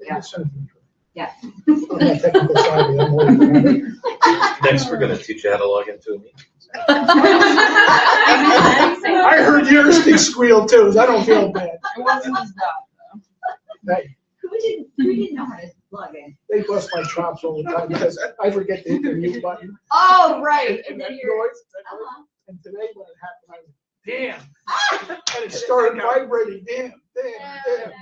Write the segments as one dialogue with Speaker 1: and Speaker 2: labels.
Speaker 1: Yeah. Yeah.
Speaker 2: I'm not technical savvy, I'm old.
Speaker 3: Next, we're gonna teach you how to log into a meeting.
Speaker 2: I heard yours squeal too, so I don't feel bad.
Speaker 4: wasn't his dog.
Speaker 2: They-
Speaker 1: Who didn't, who didn't know how to log in?
Speaker 2: They bust my chops all the time because I forget to hit the mute button.
Speaker 1: Oh, right,
Speaker 2: And
Speaker 1: and
Speaker 2: that
Speaker 1: then
Speaker 2: noise,
Speaker 1: you're.
Speaker 2: that noise.
Speaker 1: uh-huh.
Speaker 2: and today when it happened, I was, damn. And it started vibrating, damn, damn, damn.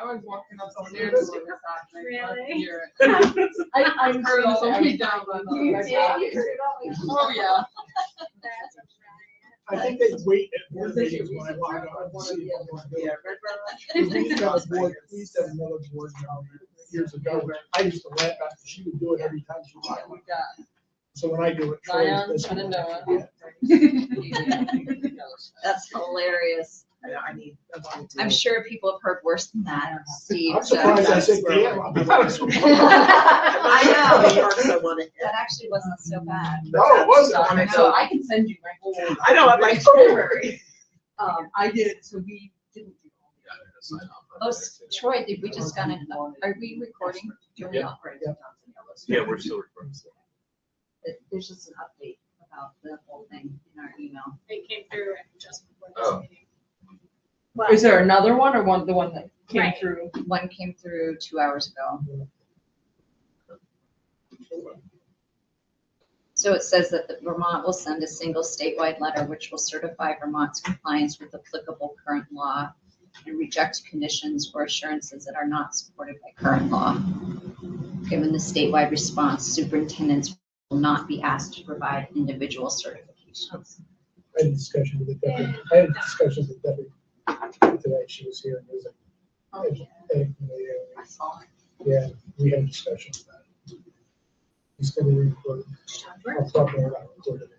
Speaker 4: I was walking up some stairs.
Speaker 2: Really?
Speaker 4: with this dog, and I
Speaker 5: Really?
Speaker 4: left here. I, I heard all the way down. by the-
Speaker 1: You did, you heard it all.
Speaker 4: Oh, yeah.
Speaker 2: I think they wait at board
Speaker 4: This is
Speaker 2: meetings when I log
Speaker 4: your reason for
Speaker 2: on to
Speaker 4: one
Speaker 2: see
Speaker 4: of
Speaker 2: what
Speaker 4: the-
Speaker 2: we're
Speaker 4: Yeah,
Speaker 2: doing. We
Speaker 4: Red
Speaker 2: used to
Speaker 4: Rock.
Speaker 2: have a board, we used to have another board down there years ago, where I used to laugh at, she would do it every time she
Speaker 4: Yeah,
Speaker 2: logged on.
Speaker 4: we got
Speaker 2: So when I do it. Troy's
Speaker 4: Zion,
Speaker 2: listening.
Speaker 4: Shenandoah.
Speaker 1: That's hilarious.
Speaker 4: I need, I wanted to.
Speaker 1: I'm sure people have heard worse than that, Steve.
Speaker 2: I'm
Speaker 1: so-
Speaker 2: surprised I said
Speaker 4: That's-
Speaker 2: damn, I'll be honest with you.
Speaker 1: I know,
Speaker 6: I want it.
Speaker 1: that actually wasn't so bad.
Speaker 2: No, it wasn't.
Speaker 4: I know, I can send you my whole.
Speaker 6: I know, I'm like,
Speaker 4: Library. Um, I did, so we didn't do all the other.
Speaker 1: Oh, s- Troy, did we just got an, are we recording? Are we
Speaker 3: Yeah.
Speaker 1: not? Right.
Speaker 2: Yeah.
Speaker 3: Yeah, we're still recording.
Speaker 1: It- There's just an update about the whole thing in our email.
Speaker 5: They came through just
Speaker 3: Oh.
Speaker 5: before this meeting.
Speaker 4: Is there another one or one, the one that came
Speaker 5: Right.
Speaker 4: through?
Speaker 1: One came through two hours ago. So it says that the Vermont will send a single statewide letter which will certify Vermont's compliance with applicable current law and reject conditions or assurances that are not supported by current law. Given the statewide response, superintendents will not be asked to provide individual certifications.
Speaker 2: I had a discussion with the deputy, I had discussions with the deputy today, she was here, and it was like, hey, yeah,
Speaker 1: I saw it.
Speaker 2: yeah, we had a discussion about it. He's gonna record it, I'll talk to her about it.